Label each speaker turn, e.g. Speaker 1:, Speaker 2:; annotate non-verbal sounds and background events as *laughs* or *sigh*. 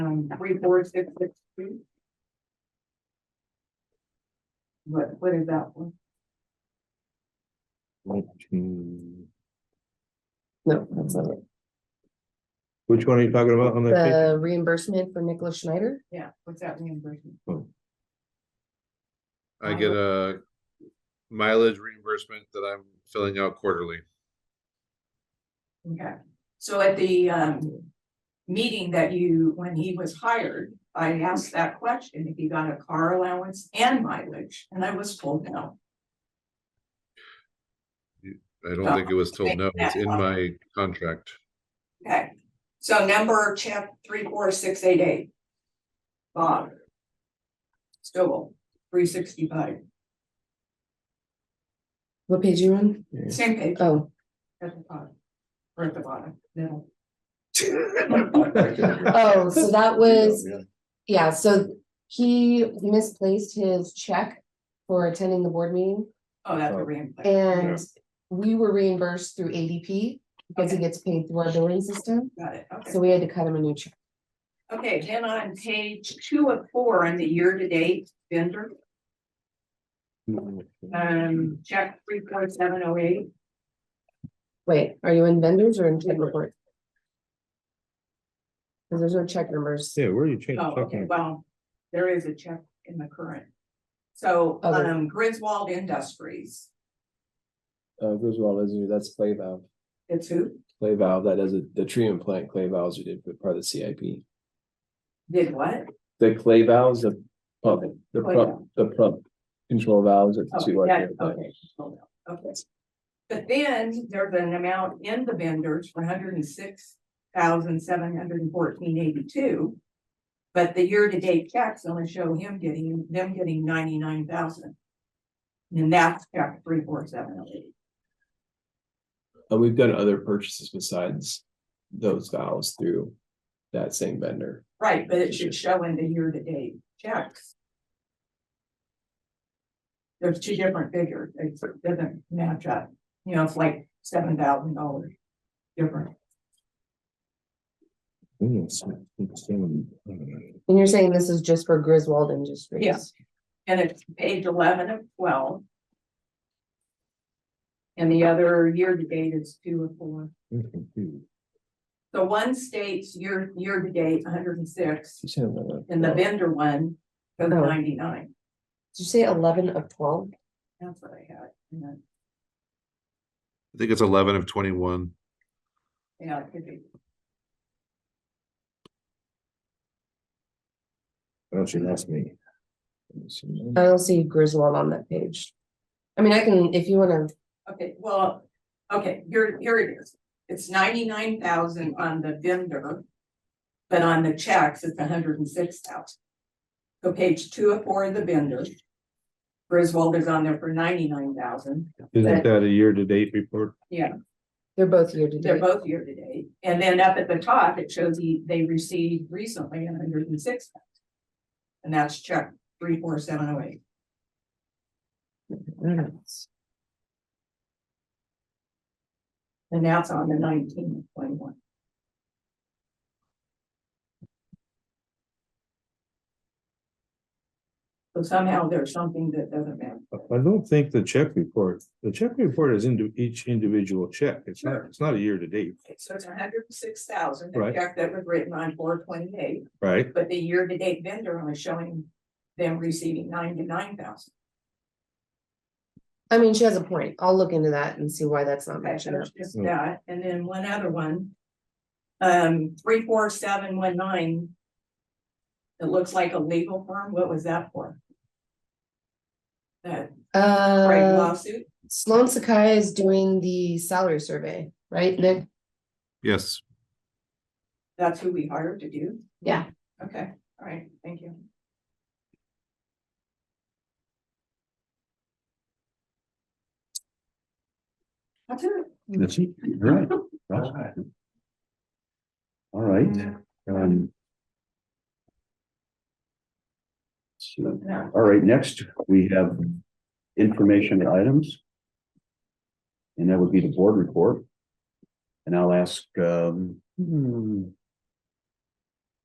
Speaker 1: um, three, four, six, six, two. What, what is that one?
Speaker 2: Hmm.
Speaker 3: No, that's not it.
Speaker 2: Which one are you talking about on *laughs* that?
Speaker 3: The reimbursement for Nicholas Schneider.
Speaker 1: Yeah, what's that reimbursement?
Speaker 4: I get a mileage reimbursement that I'm filling out quarterly.
Speaker 1: Okay, so at the um meeting that you, when he was hired, I asked that question, if he got a car allowance and mileage, and I was told no.
Speaker 4: I don't think it was told no, it's in my contract.
Speaker 1: Okay, so number check three, four, six, eight, eight. Bob. Stowell, three sixty-five,
Speaker 3: What page you on?
Speaker 2: page?
Speaker 1: same page
Speaker 3: Oh,
Speaker 1: at the bottom, or at the bottom, middle.
Speaker 3: oh, so that was, yeah, so he misplaced his check for attending the board meeting.
Speaker 1: Oh, that's a reimbursement.
Speaker 3: And we were reimbursed through ADP because he gets paid through our billing system.
Speaker 1: Got it, okay.
Speaker 3: So we had to cut him a new check.
Speaker 1: Okay, then on page two of four on the year-to-date vendor, um, check three four seven oh eight.
Speaker 3: Wait, are you in vendors or in check report? Cause there's no check numbers.
Speaker 2: Yeah, where are you changing?
Speaker 1: Oh, okay,
Speaker 2: talking about?
Speaker 1: well, there is a check in the current. So,
Speaker 3: Other.
Speaker 1: um, Griswold Industries,
Speaker 5: uh, Griswold Residue, that's clay valve,
Speaker 1: it's who
Speaker 5: clay valve, that is a- the treatment plant clay valves we did, but part of the CIP.
Speaker 1: did what?
Speaker 5: The clay valves, the pump, the
Speaker 1: Clay
Speaker 5: pump, the pump control valves at the
Speaker 1: Oh,
Speaker 5: two.
Speaker 1: yeah,
Speaker 5: RTO plant.
Speaker 1: Oh, Okay, hold on, okay. But then there's an amount in the vendors for hundred and six thousand seven hundred and fourteen eighty-two. But the year-to-date checks only show him getting, them getting ninety-nine thousand. And that's check three four seven oh eight.
Speaker 5: And we've done other purchases besides those valves through that same vendor.
Speaker 1: Right, but it should show in the year-to-date checks. There's two different figures, it doesn't match up, you know, it's like seven thousand dollars different.
Speaker 2: Hmm, it's- it's in- I don't know.
Speaker 3: And you're saying this is just for Griswold Industries?
Speaker 1: Yeah. And it's page eleven of twelve. And the other year-to-date is two or four.
Speaker 2: I'm confused.
Speaker 1: The one states year, year-to-date hundred and six,
Speaker 5: You said another-
Speaker 1: and the vendor one goes
Speaker 3: Oh.
Speaker 1: ninety-nine,
Speaker 3: Did you say eleven of twelve?
Speaker 1: that's what I had. And then,
Speaker 4: I think it's eleven of twenty-one.
Speaker 1: Yeah, it could be,
Speaker 2: Why don't you ask me?
Speaker 3: I don't see Griswold on that page. I mean, I can, if you wanna,
Speaker 1: okay, well, okay, here, here it is. It's ninety-nine thousand on the vendor. But on the checks, it's hundred and six thousand. So page two of four of the vendor. Griswold is on there for ninety-nine thousand.
Speaker 2: Isn't that a year-to-date report?
Speaker 3: they're both year to
Speaker 1: They're
Speaker 3: date.
Speaker 1: both year to date, and then up at the top, it shows the, they received recently hundred and six. And that's check three, four, seven, oh, eight. And that's on the nineteen twenty-one. So somehow there's something that doesn't matter.
Speaker 2: I don't think the check report, the check report is into each individual check. It's not,
Speaker 1: Sure.
Speaker 2: it's not a year-to-date,
Speaker 1: Okay, So it's hundred and six thousand, the
Speaker 2: Right.
Speaker 1: check that was written on four twenty-eight,
Speaker 2: right?
Speaker 1: but the year-to-date vendor only showing them receiving ninety-nine thousand.
Speaker 3: I mean, she has a point. I'll look into that and see why that's not
Speaker 1: Okay, so
Speaker 3: matching up.
Speaker 1: it's just
Speaker 2: Mm.
Speaker 1: that, and then one other one. Um, three, four, seven, one, nine. It looks like a legal firm, what was that for? That Craig
Speaker 3: Uh,
Speaker 1: lawsuit,
Speaker 3: Sloan Sakai is doing the salary survey, right, Nick?
Speaker 4: Yes,
Speaker 1: that's who we hired to do,
Speaker 3: Yeah.
Speaker 1: okay, all right, thank you. That's it.
Speaker 6: That's it, right, right. All right, um. so,
Speaker 1: No.
Speaker 6: all right, next, we have information items. And that would be the board report. And I'll ask, um, hmm,